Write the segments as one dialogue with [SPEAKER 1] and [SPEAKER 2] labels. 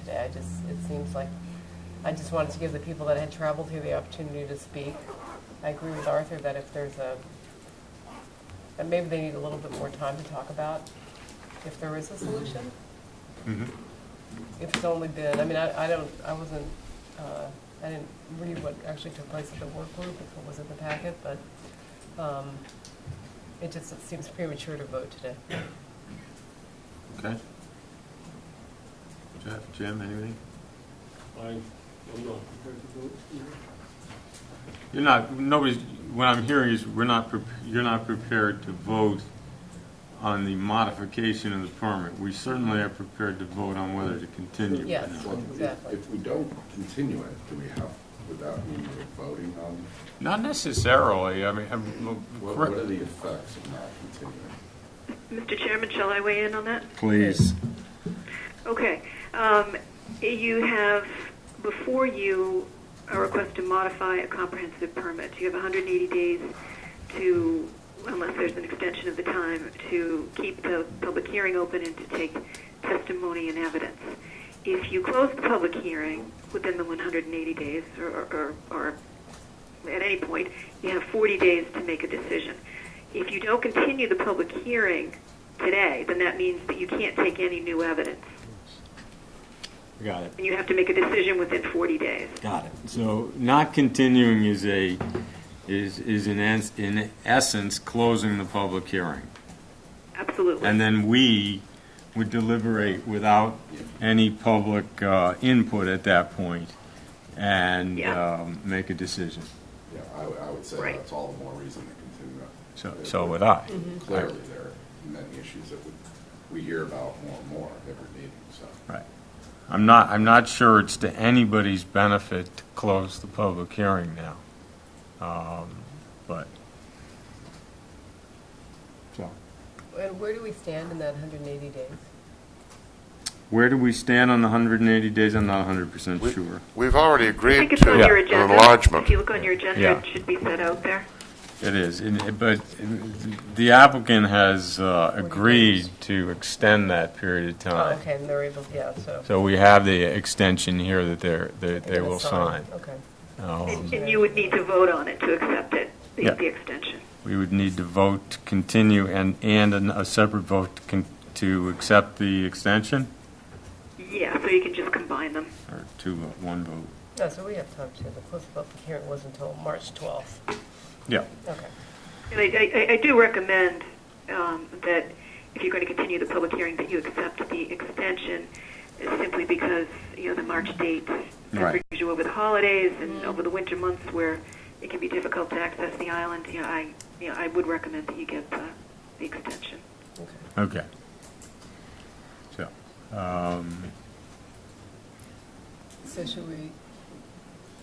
[SPEAKER 1] Tuesday. I just, it seems like, I just wanted to give the people that had traveled here the opportunity to speak. I agree with Arthur that if there's a, that maybe they need a little bit more time to talk about if there is a solution.
[SPEAKER 2] Mm-hmm.
[SPEAKER 1] If it's only been, I mean, I, I don't, I wasn't, uh, I didn't read what actually took place at the work group, if it was in the packet, but, um, it just, it seems premature to vote today.
[SPEAKER 2] Okay. Jeff, Jim, anything?
[SPEAKER 3] I am not prepared to vote.
[SPEAKER 2] You're not, nobody's, what I'm hearing is we're not, prep- you're not prepared to vote on the modification of the permit. We certainly are prepared to vote on whether to continue. it or
[SPEAKER 1] Yes.
[SPEAKER 2] not.
[SPEAKER 4] Well, if-
[SPEAKER 1] Exactly.
[SPEAKER 4] If we don't continue it, do we have, without need of voting on,
[SPEAKER 2] Not necessarily, I mean, I'm-
[SPEAKER 4] what what are the effects of not continuing?
[SPEAKER 5] Mr. Chairman, shall I weigh in on that?
[SPEAKER 2] Please.
[SPEAKER 5] Okay. Um, You have, before you, a request to modify a comprehensive permit. You have 180 days to, unless there's an extension of the time, to keep the public hearing open and to take testimony and evidence. If you close the public hearing within the 180 days, or- or, or at any point, you have 40 days to make a decision. If you don't continue the public hearing today, then that means that you can't take any new evidence.
[SPEAKER 2] Got it.
[SPEAKER 5] And you have to make a decision within 40 days.
[SPEAKER 2] Got it. So not continuing is a, is, is in, ens- in essence, closing the public hearing.
[SPEAKER 5] Absolutely.
[SPEAKER 2] And then we would deliberate without any public uh, input at that point and
[SPEAKER 5] Yeah.
[SPEAKER 2] um, make a decision.
[SPEAKER 4] Yeah, I would, I would say
[SPEAKER 5] Right.
[SPEAKER 4] that's all the more reason to continue it.
[SPEAKER 2] So,
[SPEAKER 4] There
[SPEAKER 2] so
[SPEAKER 4] were
[SPEAKER 2] would I.
[SPEAKER 4] Clearly, there are many issues that we, we hear about more and more every meeting, so.
[SPEAKER 2] Right. I'm not, I'm not sure it's to anybody's benefit to close the public hearing now. Um, But, so.
[SPEAKER 1] And where do we stand in that 180 days?
[SPEAKER 2] Where do we stand on the 180 days? I'm not 100%
[SPEAKER 6] We-
[SPEAKER 2] sure.
[SPEAKER 6] We've already
[SPEAKER 5] I
[SPEAKER 6] agreed
[SPEAKER 5] think it's on your
[SPEAKER 6] to an
[SPEAKER 5] agenda.
[SPEAKER 6] enlargement.
[SPEAKER 5] If you look on your agenda,
[SPEAKER 2] Yeah.
[SPEAKER 5] it should be set out there.
[SPEAKER 2] It is, and- eh, but the applicant has uh, agreed to extend that period of
[SPEAKER 1] Oh,
[SPEAKER 2] time.
[SPEAKER 1] okay, and they're able, yeah, so.
[SPEAKER 2] So we have the extension here that they're, that
[SPEAKER 1] they're
[SPEAKER 2] they
[SPEAKER 1] gonna
[SPEAKER 2] will sign.
[SPEAKER 1] Okay.
[SPEAKER 2] Um,
[SPEAKER 5] And and you would need to vote on it to accept it, the
[SPEAKER 2] Yeah.
[SPEAKER 5] the extension.
[SPEAKER 2] We would need to vote to continue and, and an- a separate vote to con- to accept the extension,
[SPEAKER 5] Yeah, so you can just combine them.
[SPEAKER 2] or two, vote- one vote?
[SPEAKER 1] No, so we have time to, the close of public hearing was until March 12th.
[SPEAKER 2] Yeah.
[SPEAKER 1] Okay.
[SPEAKER 5] And I, I, I do recommend um, that if you're going to continue the public hearing, that you accept the extension, uh, simply because you know the March date,
[SPEAKER 2] Right.
[SPEAKER 5] as usual over the holidays and over the winter months, where it can be difficult to access the island. You know, I, you know, I would recommend that you get the, the extension.
[SPEAKER 1] Okay.
[SPEAKER 2] Okay. So, um,
[SPEAKER 1] So should we,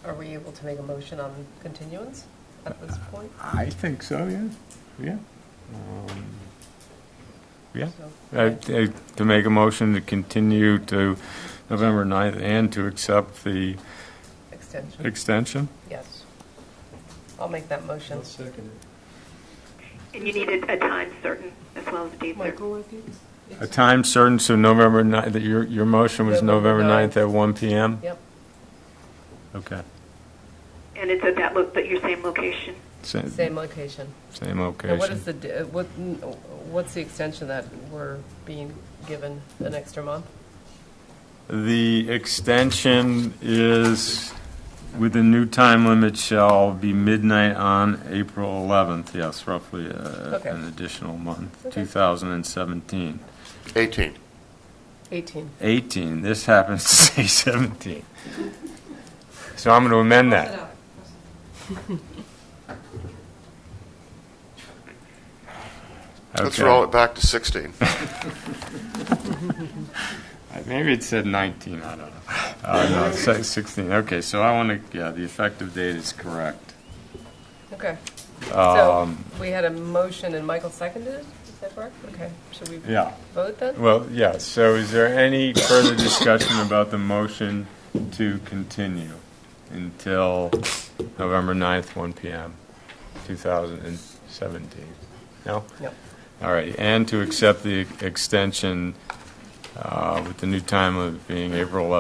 [SPEAKER 1] are we able to make a motion on continuance at this point?
[SPEAKER 2] I think so, yeah, yeah. Um, Yeah.
[SPEAKER 1] So-
[SPEAKER 2] Uh, t- To make a motion to continue to November 9th and to accept the uh,
[SPEAKER 1] Extension,
[SPEAKER 2] extension?
[SPEAKER 1] yes. I'll make that motion.
[SPEAKER 3] second it.
[SPEAKER 5] And you need a, a time certain as well as a date certain.
[SPEAKER 1] Michael, if you-
[SPEAKER 2] A time certain, so November 9th, that your, your motion was
[SPEAKER 1] November
[SPEAKER 2] November
[SPEAKER 1] 9th.
[SPEAKER 2] 9th at 1 PM?
[SPEAKER 1] Yep,
[SPEAKER 2] Okay.
[SPEAKER 5] And it's at that look, but your same location.
[SPEAKER 2] Sa-
[SPEAKER 1] same location.
[SPEAKER 2] Same
[SPEAKER 1] Now, what
[SPEAKER 2] location.
[SPEAKER 1] is the, d- uh, what, n- what's the extension that we're being given, an extra month?
[SPEAKER 2] The extension is, with the new time limit shall be midnight on April 11th, yes, roughly uh,
[SPEAKER 1] Okay.
[SPEAKER 2] an additional month,
[SPEAKER 1] Okay.
[SPEAKER 2] 2017.
[SPEAKER 6] 18.
[SPEAKER 1] 18.
[SPEAKER 2] 18, this happens to say 17. So I'm going to amend that.
[SPEAKER 6] Let's
[SPEAKER 2] Okay.
[SPEAKER 6] roll it back to 16.
[SPEAKER 2] Uh, Maybe it said 19, I don't know. Uh, no, it said 16, okay, so I want to, yeah, the effective date is correct.
[SPEAKER 1] Okay. So we had a motion and Michael seconded it, is that correct? Okay, should we
[SPEAKER 2] Yeah,
[SPEAKER 1] vote then?
[SPEAKER 2] well, yeah, so is there any further discussion about the motion to continue until November 9th, 1 PM, 2017? No?
[SPEAKER 1] No.
[SPEAKER 2] All right, and to accept the extension uh, with the new time of being April 11th.